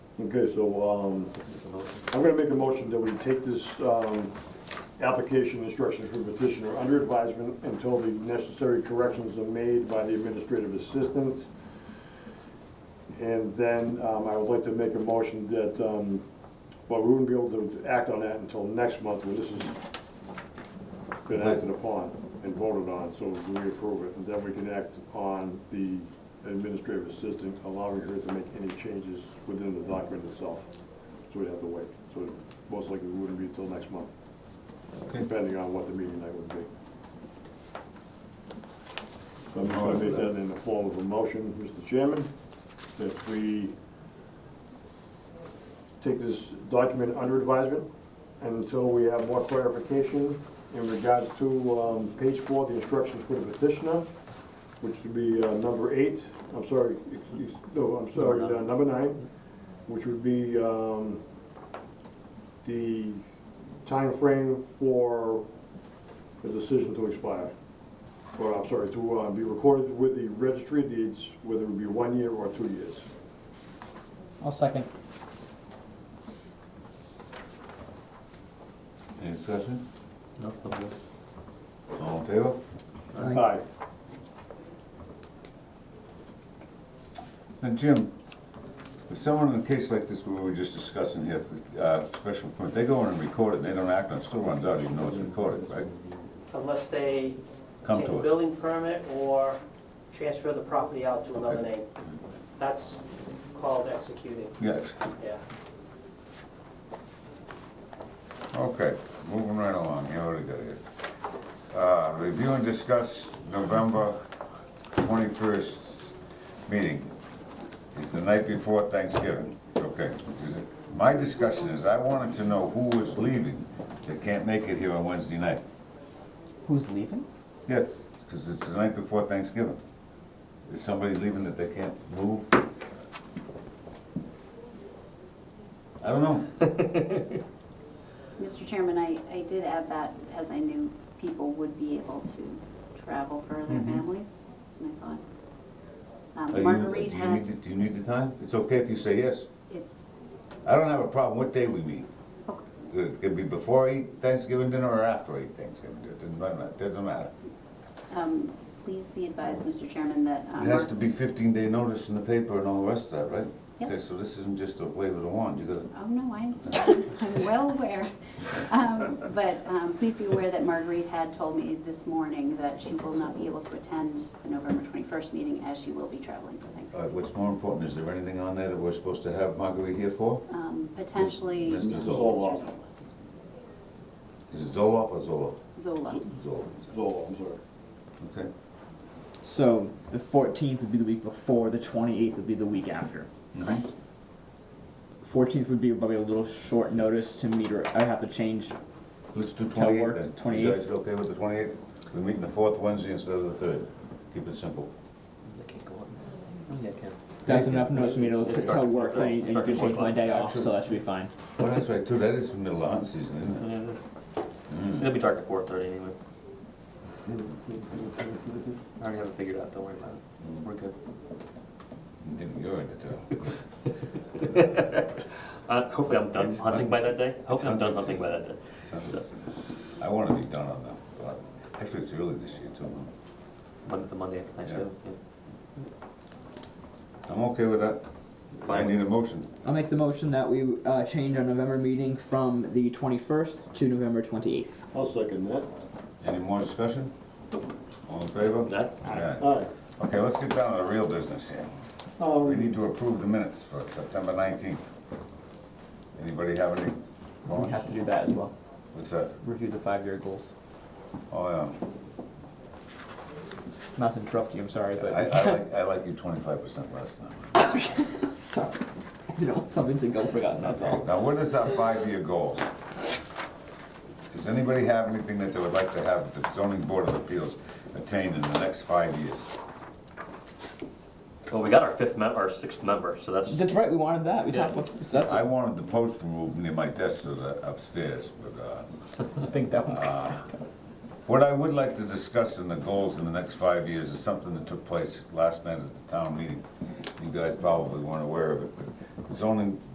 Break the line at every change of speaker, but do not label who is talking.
Okay, so, um, I'm gonna make a motion that we take this, um, application instructions from petitioner under advisement until the necessary corrections are made by the administrative assistant. And then, um, I would like to make a motion that, um, well, we wouldn't be able to act on that until next month, when this has been acted upon and voted on, so we approve it, and then we can act on the administrative assistant, allowing her to make any changes within the document itself. So we'd have to wait, so most likely it wouldn't be until next month,
Okay,
depending on what the meeting night would be. So I'm just gonna make that in the form of a motion, Mr. Chairman, that we take this document under advisement until we have more clarification in regards to um, page four, the instructions for the petitioner, which would be uh, number eight, I'm sorry, ex- ex- no, I'm sorry, uh, number nine, which would be um, the time frame for the decision to expire. Or, I'm sorry, to uh, be recorded with the registry of deeds, whether it be one year or two years.
I'll second.
any discussion?
No.
All in favor?
Aye.
Now, Jim, if someone in a case like this we were just discussing here, for, uh, special permit, they go in and record it, and they don't act on it, still runs out even though it's recorded, right?
unless they
Come
take a
to us.
building permit or transfer the property out to another name. That's called executing,
Yes,
yeah.
okay, moving right along, you already got it. Uh, review and discuss November twenty-first meeting. It's the night before Thanksgiving, okay. Is it- My discussion is, I wanted to know who was leaving that can't make it here on Wednesday night.
Who's leaving?
Yeah, because it's the night before Thanksgiving. Is somebody leaving that they can't move? I don't know.
Mr. Chairman, I, I did add that as I knew people would be able to travel for their families, and I thought.
Mm-hmm. Are
Um,
you-
Marguerite
do you need
had,
the- Do you need the time? It's okay if you say yes.
it's, oh,
I don't have a problem what day we meet.
okay,
It's gonna be before I eat Thanksgiving dinner or after I eat Thanksgiving dinner, doesn't matter, it doesn't matter.
um, please be advised, Mr. Chairman, that. um,
It has to be fifteen day notice in the paper and all the rest of that, right?
Yep.
Okay, so this isn't just a wave of the wand, you gotta,
Oh, no, I'm, I'm well aware. Um, But um, please be aware that Marguerite had told me this morning that she will not be able to attend the November 21st meeting as she will be traveling for
all right,
Thanksgiving.
what's more important, is there anything on there that we're supposed to have Marguerite here for?
Um, Potentially.
Mr.
Mr.
Zoloff.
Is it Zoloff or Zoloff?
Zola.
Zoloff.
Zoll, I'm sorry.
Okay,
So the 14th would be the week before, the 28th would be the week after. Mm-hmm.
Mhm.
14th would be probably a little short notice to meet, or I would have to change.
let's do
Tell
twenty-eight
work,
then.
28.
You guys okay with the twenty-eight? We're meeting the fourth Wednesday instead of the third. Keep it simple.
That's
Yeah.
enough notice for me to, to tell work that I need to
Start at
change my day off,
Actually-
so that should be fine.
Well, that's right, too, that is middle of hunting season, isn't it?
It'll be dark at four thirty anyway. I already have it figured out, don't worry about it. We're good.
You think You're in the town.
Uh, hopefully I'm done
It's
hunting by
hunting-
that day.
it's
Hopefully I'm done
hunting
hunting by that day.
I wanna be done on that, but actually, it's early this year, too. huh?
Monday, the Monday after Thanksgiving. yeah.
I'm okay with that. I
Fine.
need a motion.
I'll make the motion that we uh, change our November meeting from the 21st to November 28th.
I'll second that.
Any more discussion? All in favor?
That,
Aye.
Aye.
Okay, let's get down to the real business here. We
Um,
need to approve the minutes for September nineteenth. Anybody have any?
We have to do that as well.
What's that?
Review the five-year goals.
Oh,
Not to interrupt you, I'm sorry,
yeah.
but
I, I like, I like you twenty-five percent less now.
sorry. I didn't want something to go forgotten. That's all.
Now, what is our five-year goals? Does anybody have anything that they would like to have the zoning board of appeals attain in the next five years?
well, we got our fifth mem, our sixth member, so that's,
That's right. We wanted that. We talked. About, so that's.
I wanted the post removed near my desk to the upstairs, but, uh,
I think that one's.
What I would like to discuss in the goals in the next five years is something that took place last night at the town meeting. You guys probably weren't aware of it, but the zoning